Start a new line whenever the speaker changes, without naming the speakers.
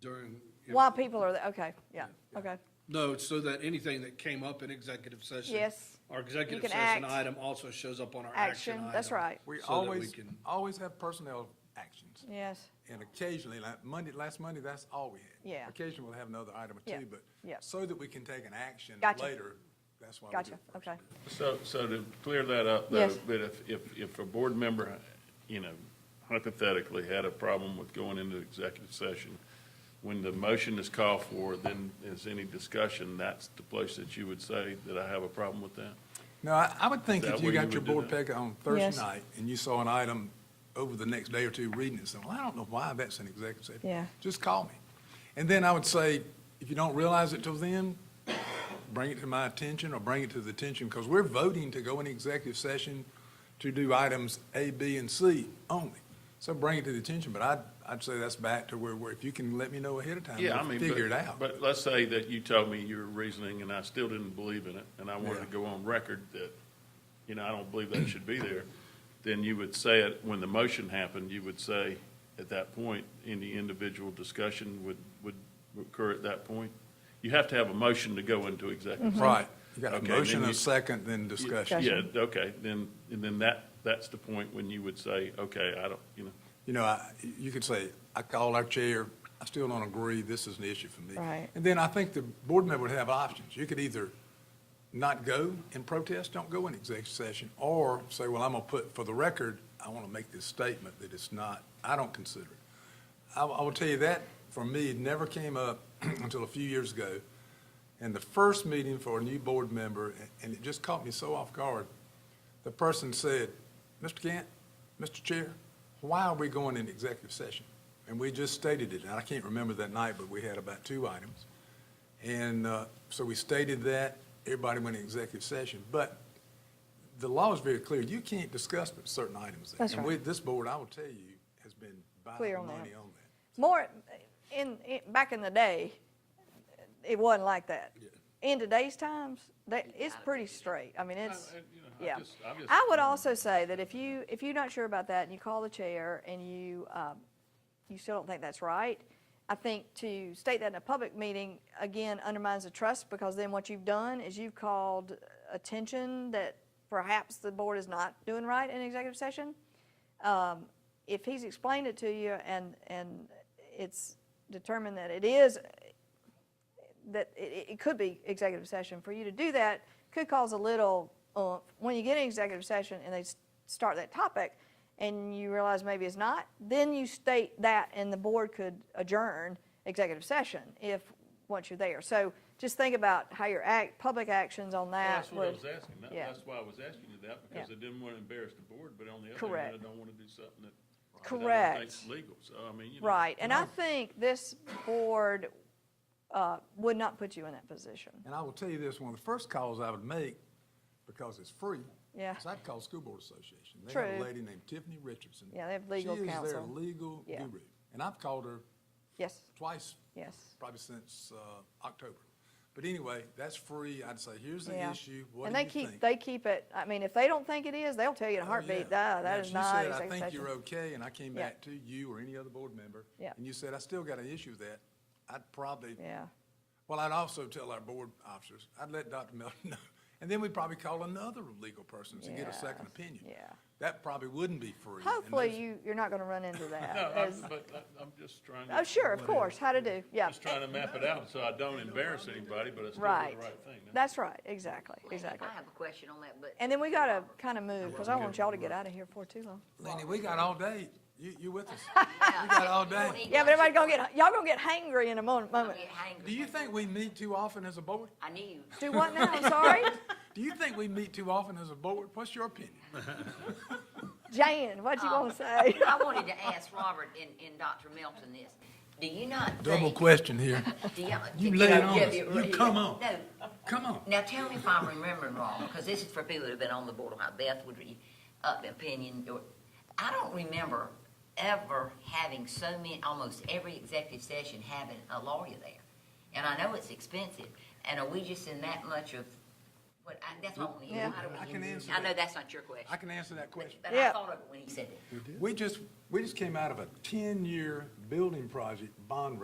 during. you know,
While people are, there. okay, yeah, okay.
No, it's so that anything that came up in executive session.
Yes.
Our
You
executive
can
session
act.
item also shows up on our action
Action,
item.
that's right.
so
We
that
always,
can-
always have personnel actions.
Yes,
And occasionally, like Monday, last Monday, that's all we had.
Yeah.
Occasionally, we'll have another item or
Yeah,
two, but
yeah.
so that we can take an action
Gotcha.
later, that's why we do it
gotcha,
first.
okay.
So, so to clear that up, though,
Yes.
that if, if, if a board member, you know, hypothetically had a problem with going into executive session, when the motion is called for, then is any discussion, that's the place that you would say that I have a problem with that?
No, I, I would think
Is that
if you
where you
got your
would do
board
that?
packet on
Yes.
Thursday night and you saw an item over the next day or two reading it, saying, well, I don't know why that's an executive session.
Yeah.
Just call me. And then I would say, if you don't realize it till then, bring it to my attention or bring it to the attention, because we're voting to go in executive session to do items A, B, and C only. So bring it to the attention, but I'd, I'd say that's back to where, where if you can let me know ahead of time,
Yeah, I
we'll
mean, but-
figure it out.
But let's say that you told me your reasoning and I still didn't believe in it, and I wanted to
Yeah.
go on record that, you know, I don't believe that should be there, then you would say it, when the motion happened, you would say at that point, any individual discussion would, would occur at that point? You have to have a motion to go into executive. session.
Right. You got a
Okay, then
motion, a
you-
second, then discussion.
Yeah, okay, then, and then that, that's the point when you would say, okay, I don't, you know,
you know, I- you could say, I called our chair, I still don't agree, this is an issue for me.
Right.
And then I think the board member would have options. You could either not go and protest, don't go in executive session, or say, well, I'm going to put, for the record, I want to make this statement that it's not, I don't consider it. I, I will tell you that, for me, it never came up until a few years ago. And the first meeting for a new board member, and it just caught me so off guard, the person said, Mr. Gant, Mr. Chair, why are we going in executive session? And we just stated it, and I can't remember that night, but we had about two items. And uh, so we stated that, everybody went in executive session. But the law is very clear, you can't discuss certain items. there.
That's
And
right.
with this board, I will tell you, has been by the
Clear on that.
money on that.
More, in, in, back in the day, it wasn't like that. In today's times, that, it's pretty straight. I mean, it's,
I- you know, I
yeah.
just- I just-
I would also say that if you, if you're not sure about that and you call the chair and you, um, you still don't think that's right, I think to state that in a public meeting, again, undermines the trust because then what you've done is you've called attention that perhaps the board is not doing right in executive session um, if he's explained it to you and, and it's determined that it is, that it, it could be executive session, for you to do that could cause a little, uh, when you get in executive session and they s- start that topic and you realize maybe it's not, then you state that and the board could adjourn executive session if, once you're there. So just think about how your act, public actions on
Well,
that
That's what I
would.
was asking. That-
yeah.
That's why I was asking you that, because I
Yeah.
didn't want to embarrass the board, but on the other hand,
Correct.
I don't want to do something that. that I don't
Correct.
think's Legal, so I mean, you know.
Right, and I think this board, uh, would not put you in that position.
And I will tell you this, one of the first calls I would make, because it's free.
Yeah.
Is I'd call School Board Association. They have
True.
a lady named Tiffany Richardson.
Yeah, they have legal
She is their
counsel.
legal
Yeah.
guru. And I've called her
Yes,
twice.
Yes.
Probably since, uh, October. But anyway, that's free. I'd say, here's the
yeah.
issue. What
And
do
they
you
keep,
think?
they keep it, I mean, if they don't think it is, they'll tell you in a
Oh,
heartbeat,
yeah.
duh,
Yeah,
that
if
is not
You said, I
executive
think you're
session.
okay, and I came
Yeah.
back to you or any other board member.
Yeah.
And you said, I still got an issue with that. I'd probably
Yeah,
Well, I'd also tell our board officers, I'd let Dr. Melton know, and then we'd probably call another legal person to get a second
Yes,
opinion.
yeah.
That probably wouldn't be free. and
hopefully
those-
you, you're not gonna run into that.
No, I'm,
as-
but I- I'm just trying to.
Oh, sure, of course, how to do, yeah.
Just trying to map it out, so I don't embarrass anybody, but I still do the
Right,
right thing.
that's right, exactly, exactly.
I have a question on that, but.
And then we gotta kinda move, cause I don't want y'all to get out of here before too long.
Lenny, we got all day. You, you with us? We got all day.
Yeah, but everybody gonna get, y'all gonna get hangry in a moment, moment.
Oh,
Do you think we meet too often as a board?
I knew.
Do what now, I'm sorry?
Do you think we meet too often as a board? What's your opinion?
Jan, what you gonna say?
I wanted to ask Robert and, and Dr. Melton this. Do you not think?
Double question here.
do y'all-
You
do
lay it
y'all-
on
yeah,
us.
yeah,
You come
yeah.
on.
No,
Come on.
now tell me if I'm remembering wrong, because this is for people that have been on the board, like Beth would be up opinion. or- I don't remember ever having so many, almost every executive session having a lawyer there. And I know it's expensive, and are we just in that much of, what, I, that's what I want to
Yeah.
hear. How do we-
I can answer
I know
that.
that's not your question.
I can answer that question.
But
Yeah.
I thought of it when he said that.
We just, we just came out of a ten-year building project bond